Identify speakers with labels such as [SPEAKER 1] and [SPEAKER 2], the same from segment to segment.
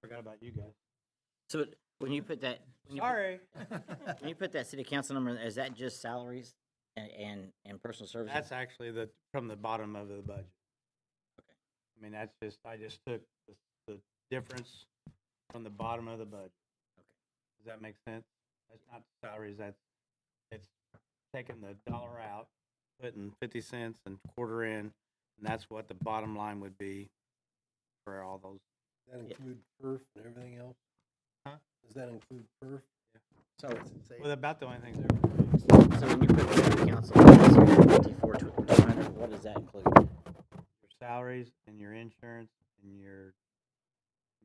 [SPEAKER 1] forgot about you guys.
[SPEAKER 2] So when you put that, when you put-
[SPEAKER 1] Sorry.
[SPEAKER 2] when you put that city council number, is that just salaries and, and, and personal services?
[SPEAKER 1] That's actually the, from the bottom of the budget. I mean, that's just, I just took the, the difference from the bottom of the budget.
[SPEAKER 2] Okay.
[SPEAKER 1] Does that make sense? That's not salaries, that's, it's taking the dollar out, putting fifty cents and quarter in, and that's what the bottom line would be for all those.
[SPEAKER 3] That
[SPEAKER 2] Yeah.
[SPEAKER 3] include perf and everything else?
[SPEAKER 1] Huh?
[SPEAKER 3] Does that include perf?
[SPEAKER 2] So,
[SPEAKER 1] Well, about the only thing there.
[SPEAKER 2] so when you put the city council, fifty-four, two hundred, what does that include?
[SPEAKER 1] your salaries and your insurance and your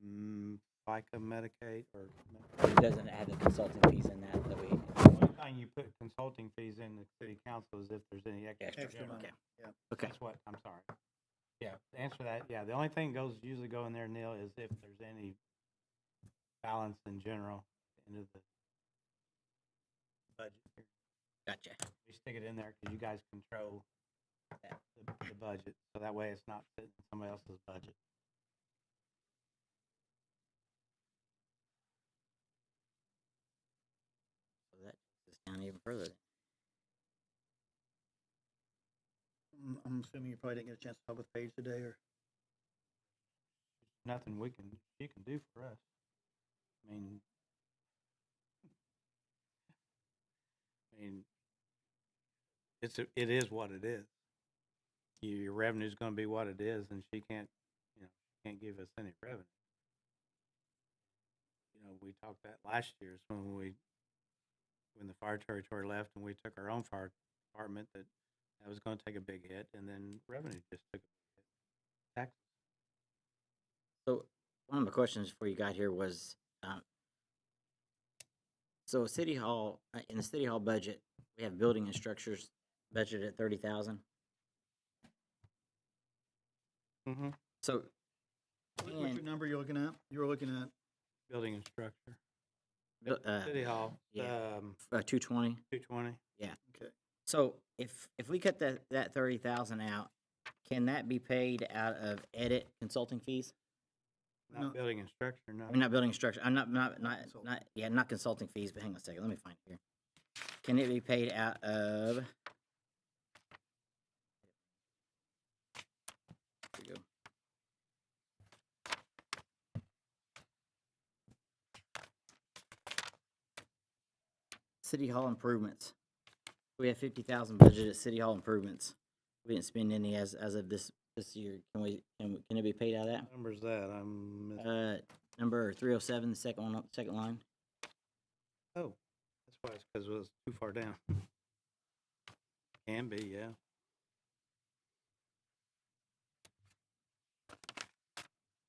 [SPEAKER 1] mm, FICA, Medicaid, or
[SPEAKER 2] It doesn't have the consulting fees in that that we.
[SPEAKER 1] one thing you put consulting fees in the city council is if there's any extra.
[SPEAKER 2] Extra,
[SPEAKER 1] general.
[SPEAKER 2] okay.
[SPEAKER 3] yeah.
[SPEAKER 2] Okay,
[SPEAKER 1] That's what, I'm sorry. Yeah, to answer that, yeah, the only thing goes, usually go in there, Neil, is if there's any balance in general into the budget.
[SPEAKER 2] gotcha.
[SPEAKER 1] We stick it in there because you guys control that- the, the budget, so that way it's not sitting in somebody else's budget.
[SPEAKER 2] So that takes us down even further.
[SPEAKER 4] I'm- Mm, I'm assuming you probably didn't get a chance to talk with Paige today, or
[SPEAKER 1] nothing we can, she can do for us. I mean, I mean, it's, a- it is what it is. Your your revenue's gonna be what it is, and she can't, you know, can't give us any revenue. You know, we talked that last year, is when we, when the fire territory left and we took our own fire department, that, that was gonna take a big hit, and then revenue just took a tax
[SPEAKER 2] So one of my questions before you got here was, um, so city hall, uh, in the city hall budget, we have building and structures budgeted at thirty thousand.
[SPEAKER 1] Mm-hmm.
[SPEAKER 2] So
[SPEAKER 4] what- what's your
[SPEAKER 2] And-
[SPEAKER 4] number you're looking at? You were looking at,
[SPEAKER 1] Building and structure.
[SPEAKER 2] Bu- uh,
[SPEAKER 1] City Hall,
[SPEAKER 2] yeah.
[SPEAKER 1] um,
[SPEAKER 2] uh, two twenty.
[SPEAKER 1] two twenty.
[SPEAKER 4] okay,
[SPEAKER 2] So if if we cut that that thirty thousand out, can that be paid out of edit consulting fees?
[SPEAKER 1] Not
[SPEAKER 4] No.
[SPEAKER 1] building and structure, no.
[SPEAKER 2] I'm not building structure. I'm not not not
[SPEAKER 4] Consult-
[SPEAKER 2] not yeah not consulting fees. But hang on a second. Let me find it here. Can it be paid out of? Here we go. City Hall improvements. We have fifty thousand budget at City Hall improvements. We didn't spend any as as of this this year. Can we can we, can it be paid out of that?
[SPEAKER 1] What Number's that, I'm, miss-
[SPEAKER 2] Uh, number three oh seven, the second one, up- second line.
[SPEAKER 1] oh, that's why it's because it was too far down. Can be, yeah.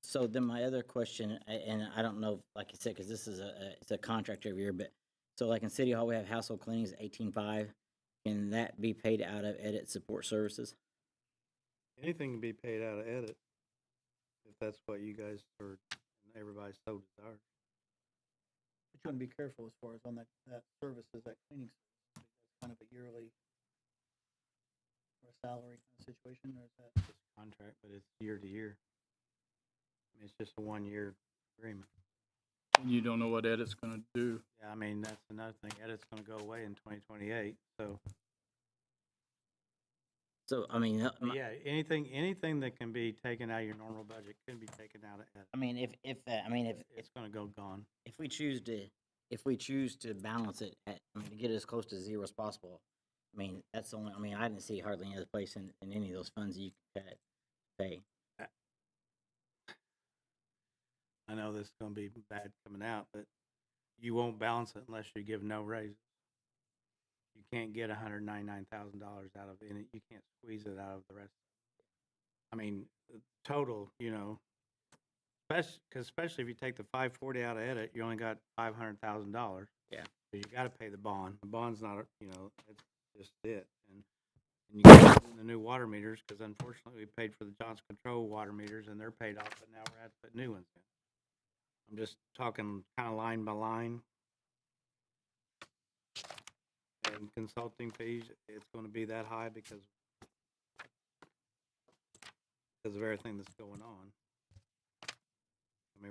[SPEAKER 2] So then my other question, a- and I don't know, like you said, because this is a- a, it's a contract every year, but, so like in City Hall, we have household cleanings eighteen-five. Can that be paid out of edit support services?
[SPEAKER 1] Anything can be paid out of edit, if that's what you guys or everybody so desires.
[SPEAKER 4] but you want to be careful as far as on that, that services, that cleaning service, because it's kind of a yearly or salary kind of situation, or is that,
[SPEAKER 1] It's a contract, but it's year to year. I mean, It's just a one-year agreement.
[SPEAKER 5] and you don't know what edit's gonna do.
[SPEAKER 1] Yeah, I mean, that's another thing, edit's gonna go away in twenty twenty-eight, so.
[SPEAKER 2] So, I mean, uh,
[SPEAKER 1] but
[SPEAKER 2] my-
[SPEAKER 1] Yeah, anything, anything that can be taken out of your normal budget can be taken out of edit.
[SPEAKER 2] I mean, if, if, uh, I mean, if, if,
[SPEAKER 1] It's gonna go gone.
[SPEAKER 2] if we choose to, if we choose to balance it at, I mean, to get as close to zero as possible, I mean, that's the only, I mean, I didn't see hardly any other place in, in any of those funds you could cut, pay.
[SPEAKER 1] I know this is gonna be bad coming out, but you won't balance it unless you give no raises. You can't get hundred ninety-nine thousand dollars out of any, you can't squeeze it out of the rest. I mean, the total, you know, especially, cause especially if you take the five forty out of edit, you only got five hundred thousand dollars.
[SPEAKER 2] Yeah.
[SPEAKER 1] So you gotta pay the bond. The bond's not, a- you know, it's just it. And, and you gotta put in the new water meters, cause unfortunately we paid for the Johnson Control water meters and they're paid off, but now we're at to put new ones in. I'm just talking kind of line by line. And consulting fees, it's gonna be that high because because of everything that's going on.